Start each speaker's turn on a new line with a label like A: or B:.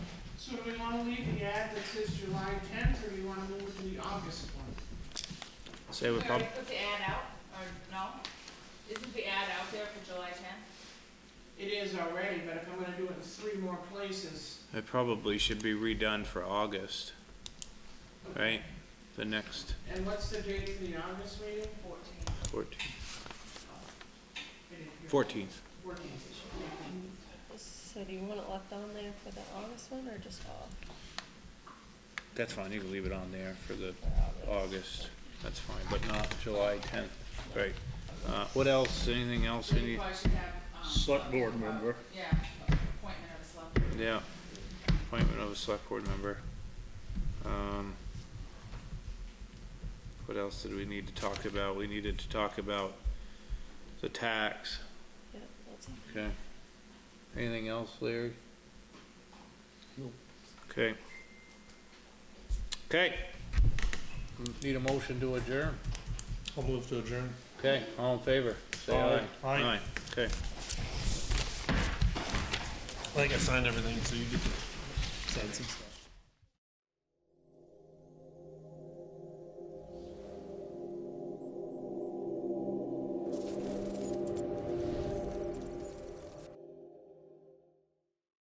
A: So do we wanna leave the ad that says July tenth, or do you wanna move it to the August one?
B: Say we
C: We
B: prob,
C: already put the ad out, or no? Isn't the ad out there for July tenth?
A: It is already, but if I'm gonna do it in three more places,
B: it probably should be redone for August, right? The next
A: and what's the date for the August meeting?
C: Fourteen.
B: fourteenth,
A: Fourteenth.
B: fourteenth.
A: Fourteenth.
D: So do you want it left on there for the August one or just off?
B: That's fine, you can leave it on there for the August, that's fine, but not July tenth, right? Uh, what else, anything else,
C: We
B: any,
C: probably should have, um.
E: Select
C: a-
E: board member.
C: Yeah, appointment of a select. board.
B: yeah, appointment of a select board member. Um, what else did we need to talk about? We needed to talk about the tax,
D: Yeah, that's it.
B: okay? Anything else, Larry?
E: Nope.
B: Okay. Okay. Need a motion to adjourn?
E: I'll move to adjourn.
B: Okay, all in favor, say aye.
E: Aye. Aye.
B: okay.
E: I think I signed everything, so you get to sign some stuff.